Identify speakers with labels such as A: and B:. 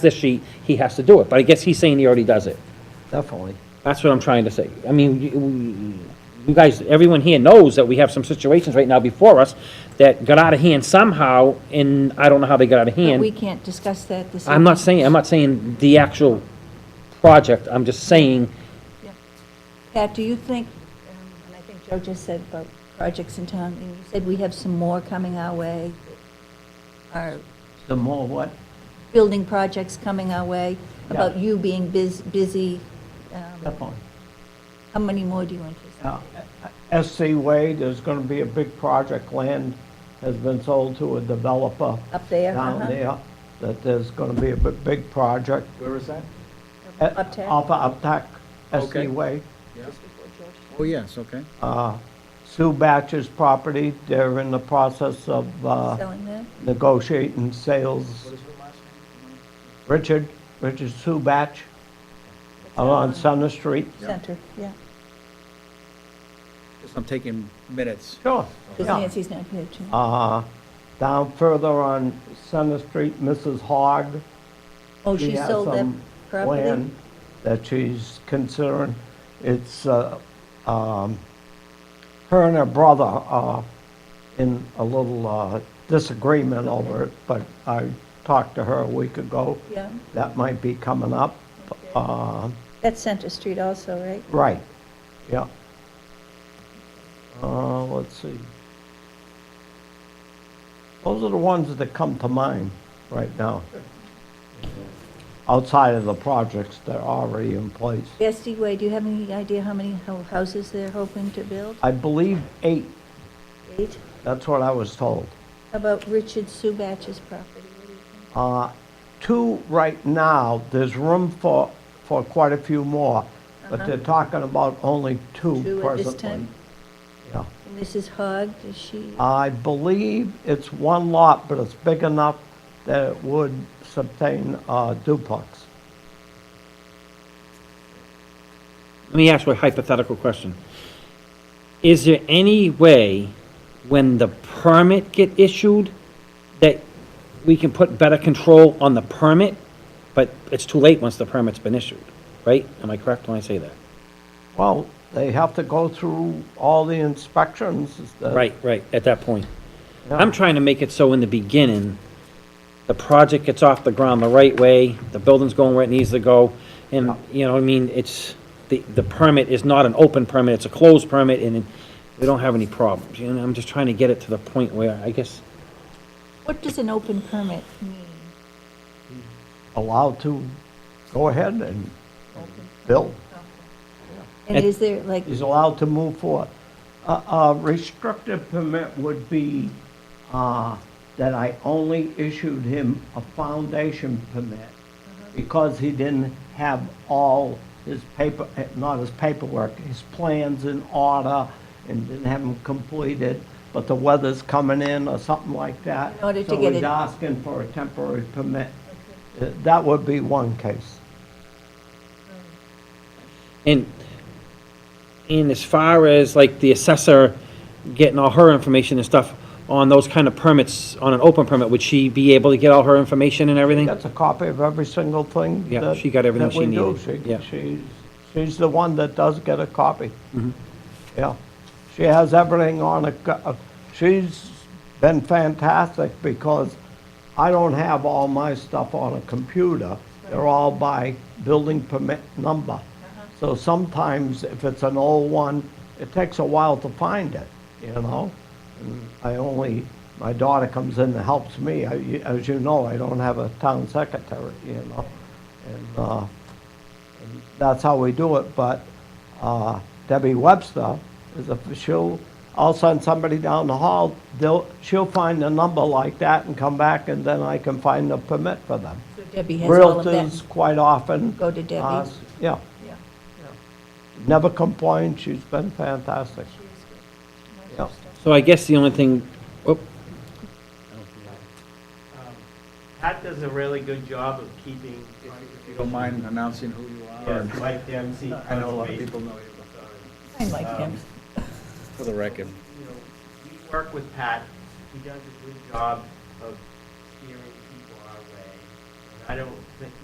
A: this sheet, he has to do it, but I guess he's saying he already does it.
B: Definitely.
A: That's what I'm trying to say. I mean, you- you guys, everyone here knows that we have some situations right now before us that got out of hand somehow, and I don't know how they got out of
C: But we
A: hand.
C: can't discuss that this evening.
A: I'm not saying, I'm not saying the actual project, I'm just saying,
C: Pat, do you think, um, and I think Joe just said about projects in town, and you said we have some more coming our way, our
B: The more what?
C: building projects coming our way, about you being bus- busy. um,
B: Definitely.
C: How many more do you anticipate?
B: Now, SC Wade is going to be a big project. Land has been sold to a developer
C: Up there?
B: down
C: uh-huh.
B: there, that there's going to be a bi- big project.
D: Where is that?
B: At-
C: Uptack?
B: Off of Uptack, SC
D: Okay.
B: Wade.
D: Oh, yes, okay.
B: Uh, Sue Batch's property, they're in the process of uh,
C: Selling that?
B: negotiating sales. Richard, Richard Sue Batch, out on Center Street.
D: Yeah.
C: Center, yeah.
D: Just I'm taking minutes.
B: Sure.
C: Because
B: yeah.
C: Nancy's not here tonight.
B: Uh, Down further on Center Street, Mrs. Hogg.
C: Oh, she
B: has
C: sold that
B: some
C: property?
B: land That she's considering. It's, uh, um, her and her brother are in a little uh, disagreement over it, but I talked to her a week ago.
C: Yeah,
B: That might be coming up. Uh,
C: that's Center Street also, right?
B: Right, yeah. Uh, let's see. Those are the ones that come to mind right now. Outside of the projects that are already in place.
C: SD Way, do you have any idea how many ho- houses they're hoping to build?
B: I believe eight,
C: Eight?
B: that's what I was told.
C: How about Richard Subatch's property?
B: Uh, Two right now, there's room for, for quite a few more, but they're talking about only two
C: Uh-huh. Two
B: presently.
C: at this time?
B: Yeah. Uh,
C: Mrs. Hogg, is she,
B: I believe it's one lot, but it's big enough that it would sustain a duplex.
A: let me ask you a hypothetical question. Is there any way, when the permit get issued, that we can put better control on the permit? But it's too late once the permit's been issued, right? Am I correct when I say that?
B: Well, they have to go through all the inspections. that-
A: Right, right, at that point.
B: Yeah.
A: I'm trying to make it so in the beginning, the project gets off the ground the right way, the building's going where it needs to go, and, you know, what I mean, it's, the, the permit is not an open permit, it's a closed permit, and we don't have any problems, you know, I'm just trying to get it to the point where, I guess,
C: what does an open permit mean?
B: Allowed to go ahead and build.
C: And
A: And-
C: is there, like,
B: He's allowed to move forward. A- A restrictive permit would be uh, that I only issued him a foundation permit because he didn't have all his paper, eh, not his paperwork, his plans in order and didn't have them completed, but the weather's coming in or something like that.
C: In order to
B: So
C: get
B: he's
C: it-
B: asking for a temporary permit. Eh, That would be one case.
A: and, and as far as, like, the assessor getting all her information and stuff on those kind of permits, on an open permit, would she be able to get all her information and everything?
B: That's a copy of every single thing.
A: Yeah,
B: that-
A: she got everything
B: that we
A: she
B: do.
A: needed,
B: She-
A: yeah.
B: She's, she's the one that does get a copy.
A: Mm-hmm.
B: Yeah. She has everything on a, co- she's been fantastic because I don't have all my stuff on a computer. They're all by building permit number. So sometimes if it's an old one, it takes a while to find it, you know? And I only, my daughter comes in and helps me. I- you- As you know, I don't have a town secretary, you know? And uh, and that's how we do it, but uh, Debbie Webster is a, she'll, I'll send somebody down the hall, they'll, she'll find a number like that and come back, and then I can find a permit for them.
C: Debbie has all of that?
B: Realtors quite often.
C: Go to Debbie.
B: uh, Yeah,
C: Yeah.
B: never complained, she's been fantastic. Yeah.
A: So I guess the only thing, oh,
E: Um, Pat does a really good job of keeping,
D: If you don't mind announcing who you are.
E: yes, Mike Dempsey.
D: I know a lot of
E: conservation.
D: people know you, uh,
C: I like him.
D: but for the record.
E: You know, we work with Pat, he does a good job of steering people our way. I don't think,